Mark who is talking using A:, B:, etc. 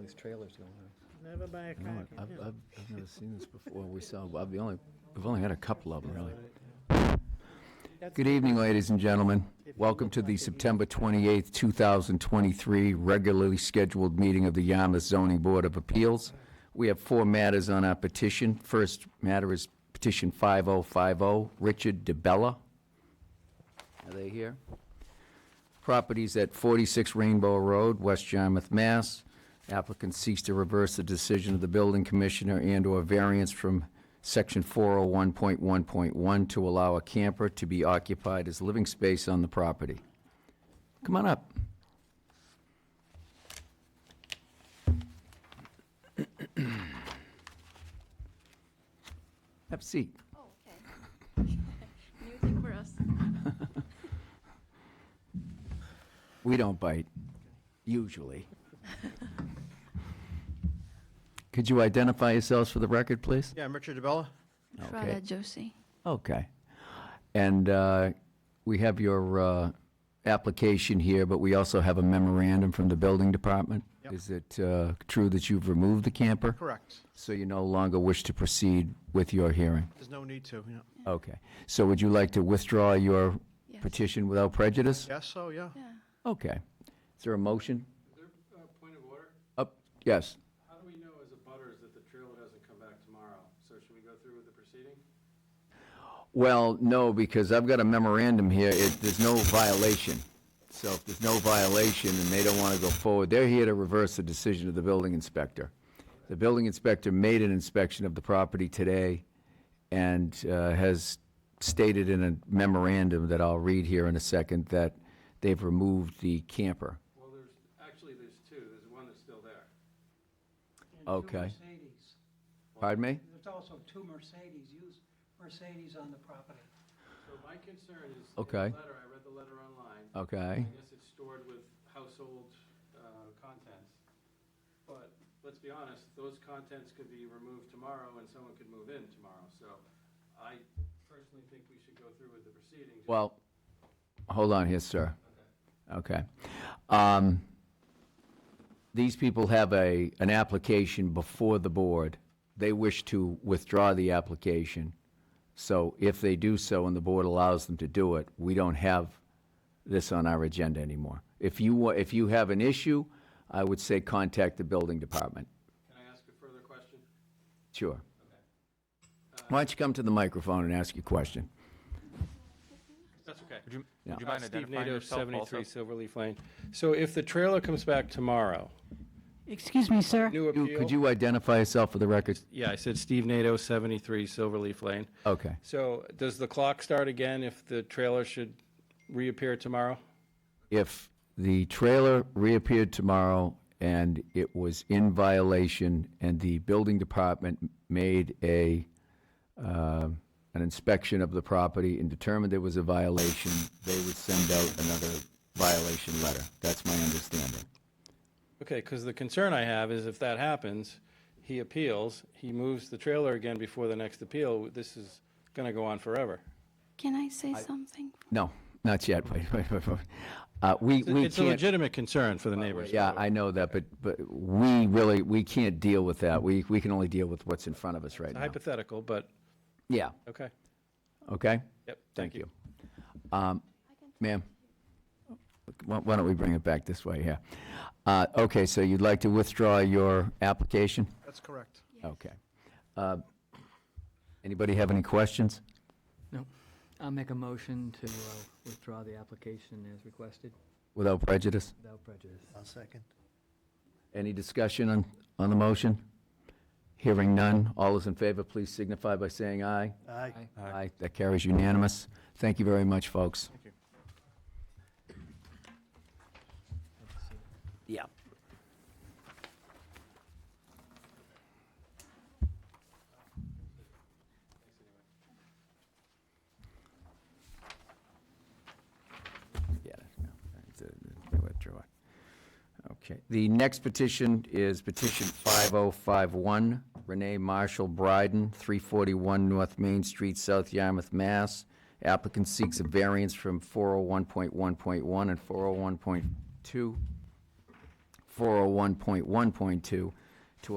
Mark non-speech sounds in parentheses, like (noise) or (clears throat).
A: these trailers going on.
B: Never buy a
C: No,
B: car.
C: I've, I've, I've never seen this before. We saw, I've the only, we've only had a couple of them, really. Good evening, ladies and gentlemen. Welcome to the September 28th, 2023 regularly scheduled meeting of the Yarmouth Zoning Board of Appeals. We have four matters on our petition. First matter is petition 5050, oh. Richard DeBella. Are they here? Properties at 46 Rainbow Road, West Yarmouth, Mass. Applicant seeks to reverse the decision of the building commissioner and/or variance from section 401.1.1 to allow a camper to be occupied as living space on the property. Come on up. (clears throat) Have a seat.
D: Oh, okay. (laughs) New thing for us.
C: We don't bite, usually. Could you identify yourselves for the record, please?
E: Yeah, I'm Richard DeBella.
C: Okay.
D: Josie.
C: Okay. And uh, we have your uh, application here, but we also have a memorandum from the building department.
E: Yep.
C: Is it uh, true that you've removed the camper,
E: Correct.
C: so you no longer wish to proceed with your hearing?
E: There's no need to, yeah.
C: Okay. So would you like to withdraw your
D: Yes.
C: petition without prejudice?
E: Yes, so, yeah.
D: Yeah.
C: Okay. Is there a motion?
F: Uh, Point of order,
C: Up, yes.
F: how do we know as a butters that the trailer doesn't come back tomorrow? So should we go through with the proceeding?
C: Well, no, because I've got a memorandum here, it, there's no violation. So if there's no violation and they don't wanna go forward, they're here to reverse the decision of the building inspector. The building inspector made an inspection of the property today and, uh, has stated in a memorandum that I'll read here in a second that they've removed the camper.
F: Well, there's, actually, there's two, there's one that's still there.
C: Okay.
G: Two Mercedes.
C: Pardon me?
G: There's also two Mercedes, used Mercedes on the property.
F: So my concern is, in
C: Okay.
F: the letter, I read the letter online.
C: Okay,
F: I guess it's stored with household uh, contents. But let's be honest, those contents could be removed tomorrow and someone could move in tomorrow. So I personally think we should go through with the proceeding. just-
C: well, hold on here, sir. Okay. Um, These people have a, an application before the board. They wish to withdraw the application. So if they do so and the board allows them to do it, we don't have this on our agenda anymore. If you, wa- if you have an issue, I would say contact the building department.
F: Can I ask a further question?
C: Sure. Why don't you come to the microphone and ask your question?
F: That's okay.
E: Would you,
C: Yeah.
E: would you mind
F: Uh, Steve
E: identifying
F: Nato,
E: yourself also?
F: 73 Silverleaf Lane. So if the trailer comes back tomorrow,
G: Excuse me, sir?
F: new
C: You-
F: appeal?
C: Could you identify yourself for the record?
F: Yeah, I said Steve Nato, 73 Silverleaf Lane.
C: Okay.
F: So does the clock start again if the trailer should reappear tomorrow?
C: if the trailer reappeared tomorrow and it was in violation and the building department made a, uh, an inspection of the property and determined there was a violation, they would send out another violation letter. That's my understanding.
F: Okay, because the concern I have is if that happens, he appeals, he moves the trailer again before the next appeal, this is going to go on forever.
D: Can I say something?
C: No, not yet. (laughs) Wait, wait, wait, wait. Uh, we, we
F: It's a
C: can't.
F: legitimate concern for the neighbors.
C: Yeah, I know that, but, but we really, we can't deal with that. We, we can only deal with what's in front of us right
F: It's
C: now.
F: Hypothetical, but,
C: Yeah,
F: okay.
C: okay?
F: Yep,
C: Thank you. Um, Ma'am, why why don't we bring it back this way, yeah? Uh, Okay, so you'd like to withdraw your application?
E: That's correct.
C: Okay. Uh, Anybody have any questions?
H: I'll make a motion to uh, withdraw the application as requested,
C: Without prejudice?
H: without prejudice.
A: I'll second.
C: Any discussion on, on the motion? Hearing none, all those in favor, please signify by saying aye.
A: Aye.
C: Aye. That carries unanimous. Thank you very much, folks.
E: Thank you.
C: Yeah. Yeah, no, it's a- it's a withdraw. Okay, the next petition is petition 5051, Renee Marshall Bryden, 341 North Main Street, South Yarmouth, Mass. Applicant seeks a oh variance from 401.1.1 and 401.2 401.1.2